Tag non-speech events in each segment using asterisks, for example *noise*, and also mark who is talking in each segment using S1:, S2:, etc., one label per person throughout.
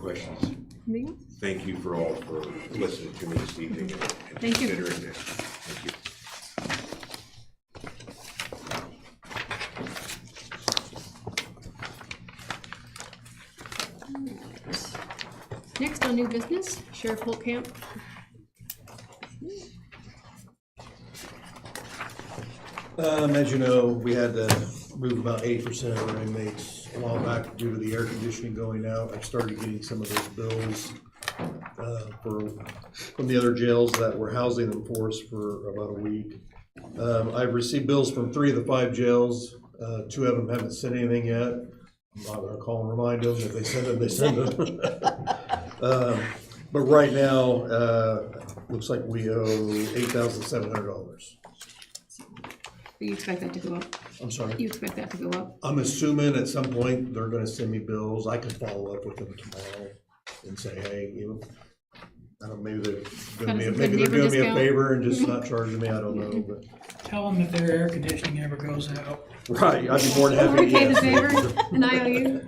S1: questions.
S2: Me?
S1: Thank you for all for listening to me this evening and and
S2: Thank you.
S1: considering this. Thank you.
S2: Next on new business, Sheriff Holtkamp.
S3: Um, as you know, we had to move about eighty percent of our inmates a while back due to the air conditioning going out. I started getting some of those bills, uh, for, from the other jails that were housing them for us for about a week. Um, I've received bills from three of the five jails, uh, two of them haven't sent anything yet. I'm not gonna call and remind them, if they send them, they send them. *laughs* Um, But right now, uh, looks like we owe eight thousand seven hundred dollars.
S2: You expect that to go up?
S3: I'm sorry.
S2: You expect that to go up?
S3: I'm assuming at some point they're gonna send me bills, I can follow up with them tomorrow and say, hey, you know, I don't, maybe they're doing me,
S2: Got a good
S3: maybe they're doing me a
S2: neighbor
S3: favor and just not charging me, I don't know, but.
S4: Tell them if their air conditioning ever goes out,
S3: Right, I'd be more than happy to
S2: Okay, the
S3: yes.
S2: favor, an IOU.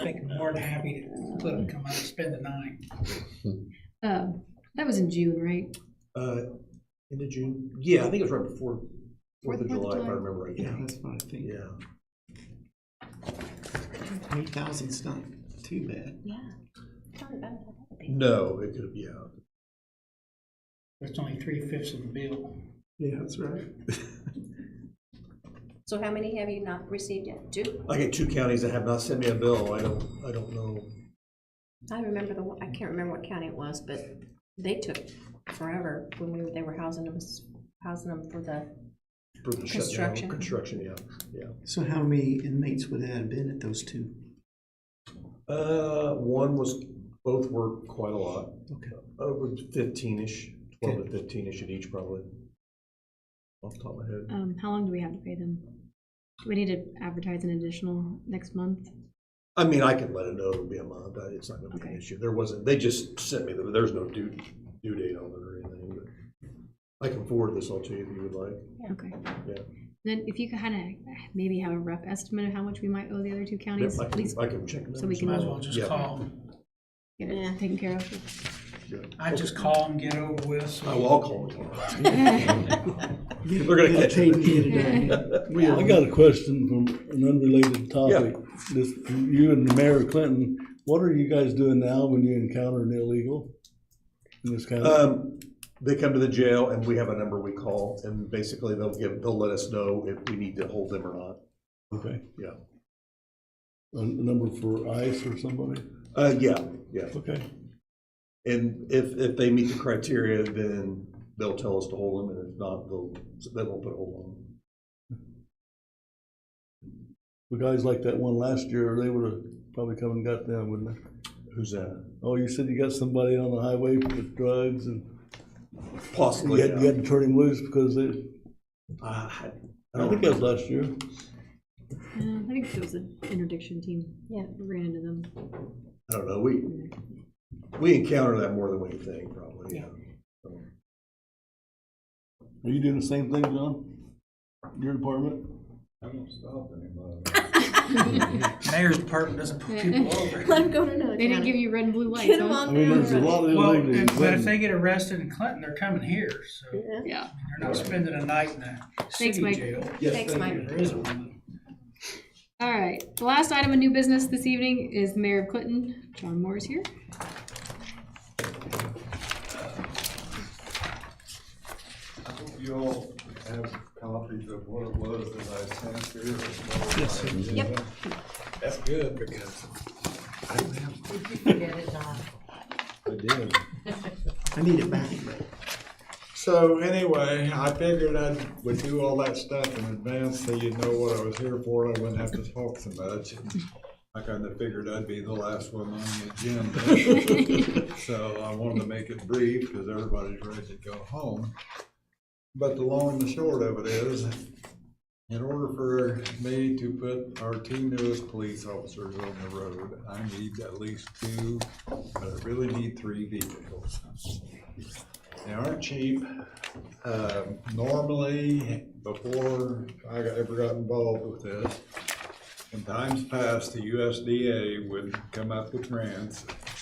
S4: I think we're more than happy to let them come out and spend the night.
S2: Uh, That was in June, right?
S3: Uh, end of June, yeah, I think it was right before, Fourth
S2: Fourth
S3: of
S2: of
S3: July, if I
S2: July.
S3: remember right, yeah,
S5: that's what I think.
S3: yeah.
S5: Eight thousand's not too bad.
S6: Yeah. Tell me about it.
S3: No, it could, yeah,
S4: It's only three fifths of the bill.
S5: Yeah, that's right.
S6: So how many have you not received yet? Two?
S3: I get two counties that have not sent me a bill, I don't, I don't know,
S6: I remember the, one- I can't remember what county it was, but they took forever when we, were- they were housing them, housing them for the,
S3: for the shutdown,
S6: Construction.
S3: construction, yeah, yeah.
S5: So how many inmates would that have been at those two?
S3: Uh, one was, both were quite a lot.
S5: Okay.
S3: Over fifteen-ish, twelve to fifteen-ish at each probably. Off the top of my head.
S2: Um, How long do we have to pay them? Do we need to advertise an additional next month?
S3: I mean, I can let it know it'll be a month, but it's not gonna be an
S2: Okay.
S3: issue. There wasn't, they just sent me, the- there's no due, due date on it or anything, but I can forward this all to you if you would like.
S2: Okay.
S3: Yeah.
S2: Then if you could kind of maybe have a rough estimate of how much we might owe the other two counties,
S3: I
S2: at least
S3: can, I can check. them
S2: so we
S3: out.
S2: can-
S4: Might as well just
S3: Yeah.
S4: call them.
S2: get it taken care of. *laughs*
S3: Yeah.
S4: I just call them, get over with. so-
S3: I will, I'll call them tomorrow.
S2: *laughs* Uh,
S5: They're
S3: gonna catch it. *laughs*
S7: I got a question from an unrelated topic. This, you and Mayor Clinton, what are you guys doing now when you encounter an illegal? In this county?
S3: Um, they come to the jail and we have a number we call and basically they'll give, they'll let us know if we need to hold them or not.
S7: okay,
S3: Yeah.
S7: a number for ICE or somebody?
S3: Uh, yeah, yeah.
S7: Okay,
S3: And if, if they meet the criteria, then they'll tell us to hold them, and if not, they'll, they won't put a hold on them.
S7: the guys like that one last year, they would have probably come and got them, wouldn't they?
S3: Who's that?
S7: Oh, you said you got somebody on the highway with drugs and you
S3: Possibly.
S7: had, you
S3: yeah.
S7: had to turn him loose because they,
S3: Uh, I
S7: I
S3: don't-
S7: think that was last year.
S2: Uh, I think it was an interdiction team.
S6: Yeah.
S2: We Ran into them.
S3: I don't know, we, we encounter that more than we think, probably, yeah.
S7: Are you doing the same thing, John? Your department?
S4: Mayor's department doesn't put people over.
S6: let them go to another
S2: They didn't give
S6: county.
S2: you red and blue lights,
S6: Get them
S2: huh?
S7: I
S6: on
S7: mean,
S6: their
S7: there's a
S6: own.
S7: lot of
S4: Well,
S7: illegal.
S4: if- but if they get arrested in Clinton, they're coming here, so they're
S6: Yeah.
S2: Yeah.
S4: not spending a night in a city
S2: Mike.
S4: jail.
S6: Thanks, Mike.
S4: There is one.
S2: All right. The last item of new business this evening is Mayor of Clinton. John Moore is here.
S8: I hope you all have copies of what it was that I sent here. Yes, sir.
S6: Yep.
S8: That's good, because I don't have.
S7: I did.
S5: I need it back.
S8: So anyway, I figured I would do all that stuff in advance so you'd know what I was here for. I wouldn't have to talk so much. I kind of figured I'd be the last one on the agenda. So I wanted to make it brief because everybody's ready to go home. But the long and the short of it is, in order for me to put our two newest police officers on the road, I need at least two, but I really need three vehicles. They aren't cheap. Um, Normally, before I got- ever got involved with this, in times past, the USDA would come up with grants